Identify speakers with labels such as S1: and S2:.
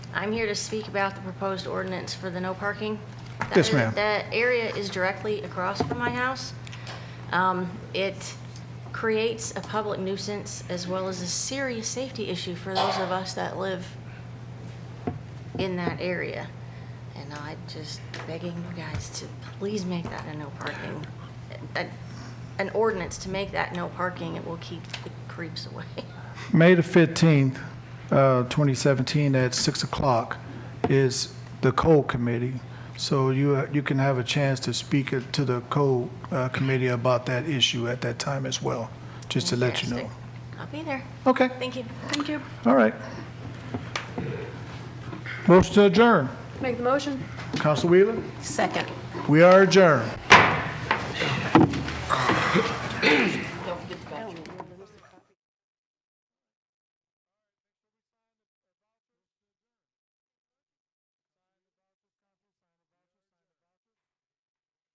S1: I'm here to speak about the proposed ordinance for the no parking. That
S2: Yes,
S1: is-
S2: ma'am.
S1: That area is directly across from my house. Um, It creates a public nuisance as well as a serious safety issue for those of us that live in that area. And I just begging you guys to please make that a no parking, a- an ordinance to make that no parking. It will keep the creeps away.
S2: May the 15th, uh, 2017, at 6 o'clock is the Code Committee. So you, uh, you can have a chance to speak it to the Code uh, Committee about that issue at that time as well, just to let you know.
S1: Fantastic. I'll be there.
S2: Okay,
S1: Thank you. Thank you.
S2: all right. Motion to adjourn.
S3: Make the motion.
S2: Council Wheeler,
S3: Second.
S2: we are adjourned.